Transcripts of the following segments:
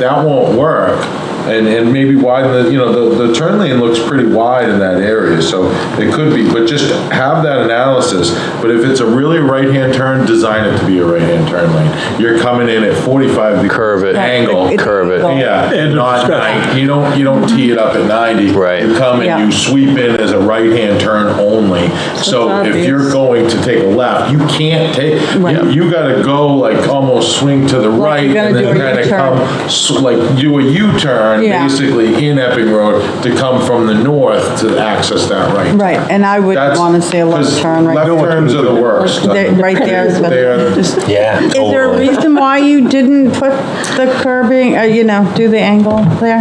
that won't work. And, and maybe widen the, you know, the, the turn lane looks pretty wide in that area, so it could be, but just have that analysis. But if it's a really right-hand turn, design it to be a right-hand turn lane. You're coming in at 45 degree Curve it. Angle. Curve it. Yeah, not nine, you don't, you don't tee it up at 90. Right. You come Yeah. and you sweep in as a right-hand turn only. So if obvious. you're going to take a left, you can't take, Right. you- you gotta go like almost swing to the right you're and gonna then do a kinda U-turn. come, s- like do a U-turn Yeah. basically in Epping Road to come from the north to access that right. Right, and I would That's- want to say a left 'cause turn right Left turns are the worst. They- right there is They are- better. Just- Yeah, Is there a totally. reason why you didn't put the curbing, uh, you know, do the angle there?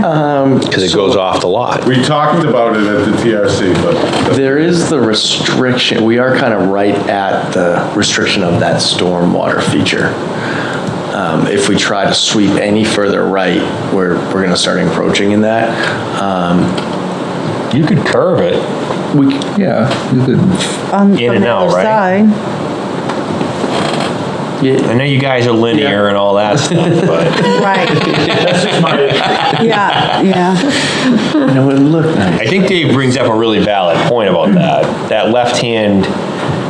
Because it goes off the lot. We talked about it at the TRC, but There is the restriction, we are kind of right at the restriction of that stormwater feature. Um, If we try to sweep any further right, we're, we're going to start encroaching in that. Um, You could curve it. We, c- Yeah, you could, In On- from and the out, other right? side. I know you guys are linear and all that stuff, but Right, yeah, yeah, and it would look nice. I think Dave brings up a really valid point about that. That left-hand,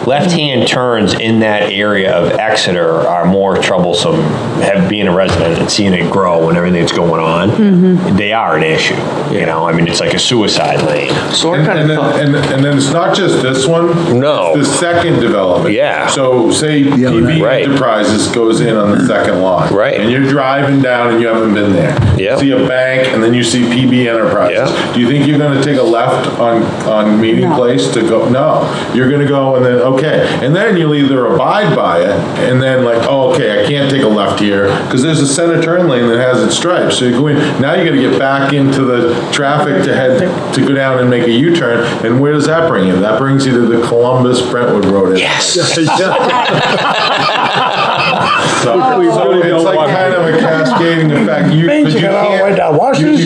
left-hand turns in that area of Exeter are more troublesome, have, being a resident and seeing it grow and everything that's going on. They are an issue, you know? I mean, it's like a suicide lane. So I And and kind of then, thought, and and then it's not just this one. No. It's the second development. Yeah. So say right. PB Right. Enterprises goes in on the second lot. Right. And you're driving down and you haven't been there. Yeah. See a bank and then you see PB Enterprises. Yeah. Do you think you're gonna take a left on, on Meeting No. Place to go? No. You're gonna go and then, okay. And then you'll either abide by it and then like, oh, okay, I can't take a left here because there's a center turn lane that has its stripes. So you go in, now you gotta get back into the traffic to head, to go down and make a U-turn. And where does that bring you? That brings you to the Columbus Brentwood Road. Yes. So so it's like kind of a cascading effect. You, 'cause you can't, you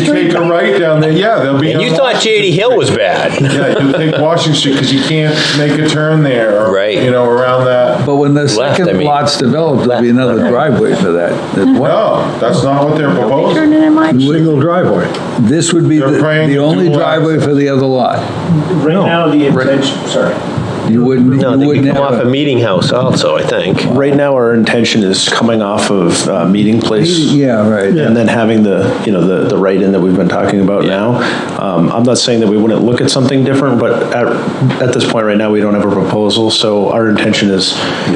you take a right down there, yeah, there'll be. And you no- thought JD Hill was bad. Yeah, you'll take Washington Street because you can't make a turn there. or, Right. You know, around that. but when the Left, I second mean. lot's developed, there'll be another driveway for that. There's one No, that's not what they're proposing. turning in my, Single driveway. This would be They're the praying the to only dual driveway for the other lot. Right now, the intention, sorry. You wouldn't, you wouldn't have a Meeting House also, I think. right now, our intention is coming off of uh, Meeting Place. Yeah, right. and then having the, you know, the, the write-in that we've been talking about now. Um, I'm not saying that we wouldn't look at something different, but at, at this point right now, we don't have a proposal, so our intention is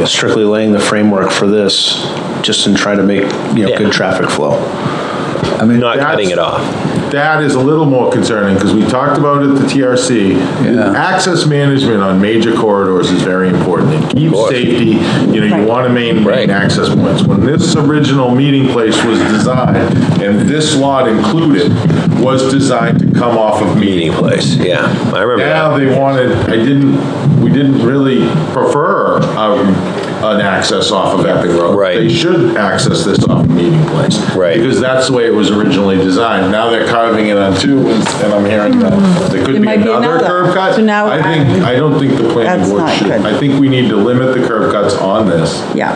strictly laying the framework for this, just in trying to make, you know, Yeah. good traffic flow. I mean, Not cutting cutting it it off. That is a little more concerning because we talked about it at the TRC. Yeah. Access management on major corridors is very important. It keeps course. safety, you know, you want to Right. maintain access points. When this original meeting place was designed, and this lot included, was designed to come off of meeting. Meeting Place, yeah. I remember Now that. they wanted, I didn't, we didn't really prefer um, an access off of Epping Road. Right. They should access this off of Meeting Place. Right. Because that's the way it was originally designed. Now they're carving it on two, and and I'm hearing that there could be It Hmm. might be another another. curb cut. So now I think, I'm- I don't think the planning That's board not should, good. I think we need to limit the curb cuts on this. yeah,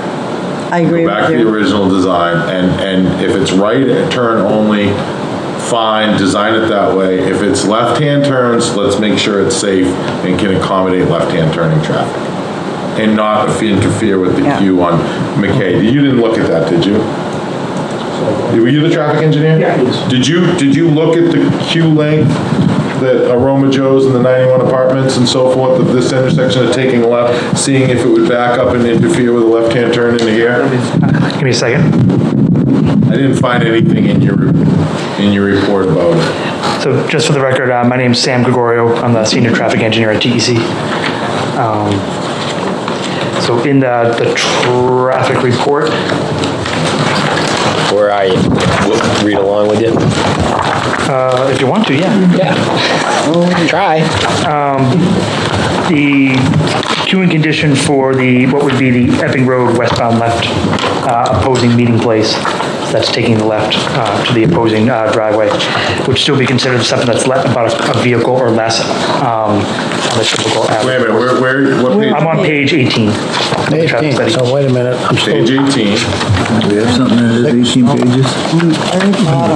I agree Go back with to the you. original design, and, and if it's right turn only, fine, design it that way. If it's left-hand turns, let's make sure it's safe and can accommodate left-hand turning traffic, and not if- interfere with the Yeah. queue on McKay. You didn't look at that, did you? Were you the traffic engineer? Yeah, I was. Did you, did you look at the queue length that Aroma Joe's and the 91 Apartments and so forth of this intersection of taking left, seeing if it would back up and interfere with a left-hand turn into here? Give me a second. I didn't find anything in your, in your report about it. So just for the record, uh, my name's Sam Gregorio. I'm the senior traffic engineer at DEC. Um, So in the, the traffic report, Where are you? We'll Read along with you? uh, if you want to, yeah. Um, Try. the queuing condition for the, what would be the Epping Road westbound left uh, opposing meeting place. that's taking the left uh, to the opposing uh, driveway would still be considered something that's le- about a- a vehicle or less um, on the typical Wait a average. minute, where, where, what I'm page? on page 18. of the 18, traffic study. so wait a minute, I'm still Page 18. Do we have something that is 18 pages?